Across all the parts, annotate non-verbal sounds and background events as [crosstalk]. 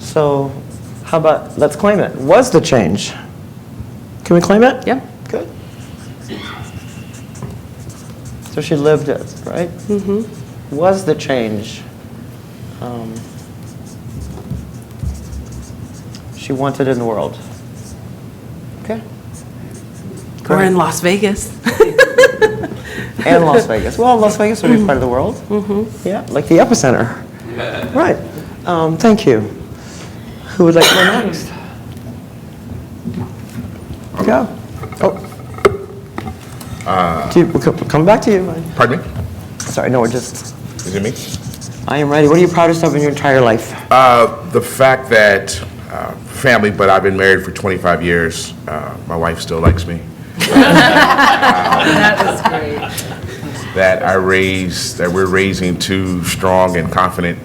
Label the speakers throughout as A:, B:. A: So how about, let's claim it. Was the change? Can we claim it?
B: Yep.
A: Good. So she lived it, right? Mm-hmm. Was the change? um, She wanted in the world. Okay.
B: Or
A: Great.
B: in Las Vegas.
A: And Las Vegas. Well, Las Vegas would be part of the world. Mm-hmm. Yeah, like the epicenter. Right. Um, Thank you. Who would like to go next? Go. Oh.
C: Uh.
A: Do you- we'll co- Come back to you.
C: Pardon me?
A: Sorry, no, we're just,
C: Is it me?
A: I am ready. What are you proudest of in your entire life?
C: Uh, The fact that, uh, family, but I've been married for 25 years. Uh, My wife still likes me. That I raised, that we're raising two strong and confident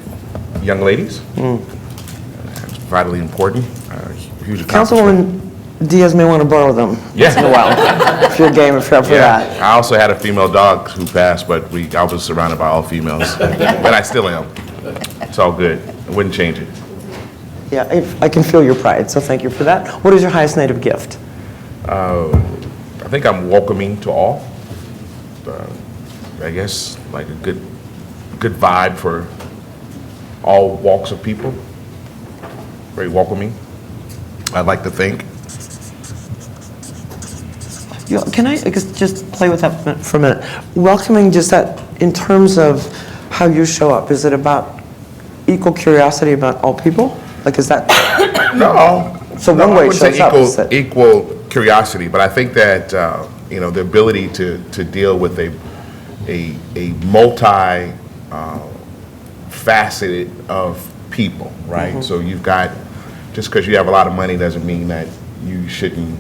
C: young ladies. That's vitally important, uh, huge accomplishment.
A: Councilwoman Diaz may want to borrow them.
C: Yeah.
A: In a while, if you're game, if you're up for that.
C: Yeah. I also had a female dog who passed, but we, I was surrounded by all females. But I still am. It's all good. I wouldn't change it.
A: Yeah, if- I can feel your pride, so thank you for that. What is your highest native gift?
C: I think I'm welcoming to all. Uh, I guess like a good, good vibe for all walks of people. Very welcoming. I'd like to think.
A: You know, Can I just just play with that mi- for a minute? Welcoming, just that, in terms of how you show up, is it about equal curiosity about all people? Like, is that,
C: No.
A: So
C: no,
A: one
C: I
A: way it
C: wouldn't say
A: shows up
C: equal-
A: is that-
C: Equal curiosity, but I think that, uh, you know, the ability to, to deal with a, a, a multi uh, faceted of people,
A: Mm-hmm.
C: right? So you've got, just because you have a lot of money doesn't mean that you shouldn't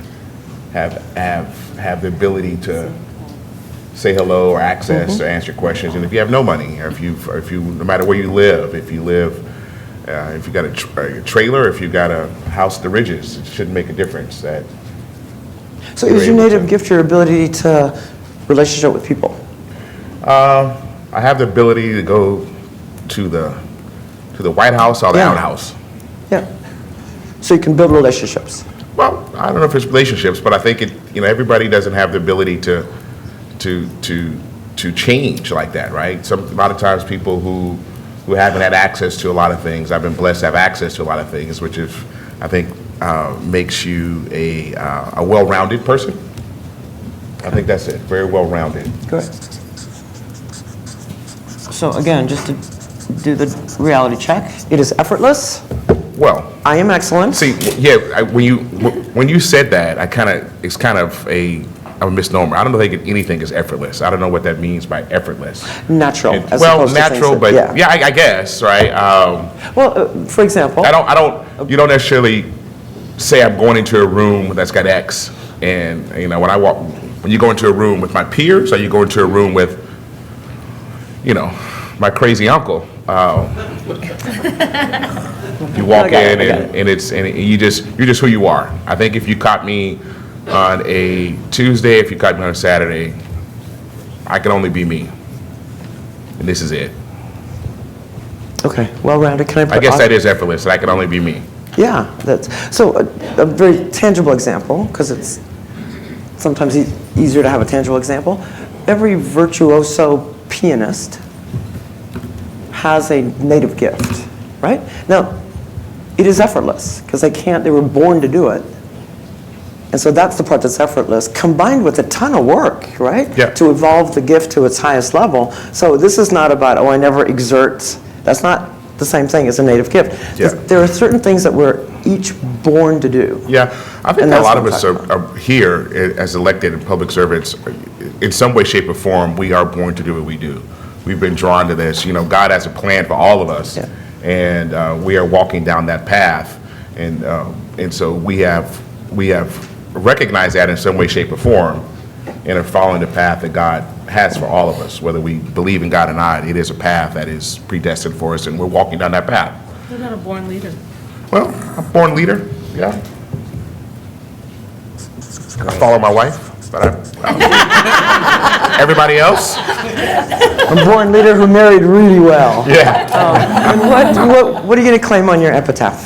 C: have, have, have the ability to say hello or access or answer questions. And if you have no money, or if you, or if you, no matter where you live, if you live, uh, if you got a, tr- a trailer, if you got a house, the ridges, it shouldn't make a difference. That
A: so
C: You're
A: is your
C: able
A: native
C: to-
A: gift your ability to relationship with people?
C: I have the ability to go to the to the White House or the
A: Yeah.
C: Outer House.
A: Yeah. So you can build relationships?
C: Well, I don't know if it's relationships, but I think it. You know, everybody doesn't have the ability to to to to change like that, right? Some a lot of times people who who haven't had access to a lot of things. I've been blessed to have access to a lot of things, which is I think uh, makes you a uh, a well-rounded person. I think that's it. Very well-rounded.
A: Correct. So again, just to do the reality check, it is effortless,
C: Well,
A: I am excellent.
C: See, yeah, I- when you, when you said that, I kind of, it's kind of a a misnomer. I don't think anything is effortless. I don't know what that means by effortless.
A: Natural, as
C: Well,
A: opposed to things
C: natural,
A: that-
C: but,
A: yeah.
C: yeah, I I guess, right? Um,
A: Well, uh, for example,
C: I don't, I don't, you don't necessarily say I'm going into a room that's got X, and, you know, when I walk, when you go into a room with my peers, or you go into a room with, you know, my crazy uncle,
A: [laughs]
C: uh,
A: I
C: you walk
A: got it,
C: in
A: I got
C: and, and it's, and you just, you're just who you are. I think if you caught me on a Tuesday, if you caught me on a Saturday, I can only be me. And this is it.
A: okay, well-rounded, can I put?
C: I guess that is effortless, that I can only be me.
A: Yeah, that's, so a, a very tangible example, because it's sometimes e- easier to have a tangible example. Every virtuoso pianist has a native gift, right? Now, it is effortless, because they can't, they were born to do it. And so that's the part that's effortless, combined with a ton of work, right?
C: Yeah.
A: To evolve the gift to its highest level. So this is not about, oh, I never exert, that's not the same thing as a native gift.
C: Yeah.
A: There are certain things that we're each born to do.
C: Yeah, I think
A: And
C: a
A: that's
C: lot
A: what
C: of
A: I'm
C: us
A: talking
C: are, are here i- as elected and public servants, in some way, shape, or form, we are born to do what we do. We've been drawn to this. You know, God has a plan for all of us,
A: Yeah.
C: and uh, we are walking down that path. And um, and so we have we have recognized that in some way, shape, or form, and are following the path that God has for all of us, whether we believe in God or not. It is a path that is predestined for us, and we're walking down that path.
B: You're not a born leader.
C: Well, I'm born leader, yeah. I follow my wife, but I, I- [laughs] everybody else,
A: A born leader who married really well.
C: yeah.
A: And what, what, what are you going to claim on your epitaph?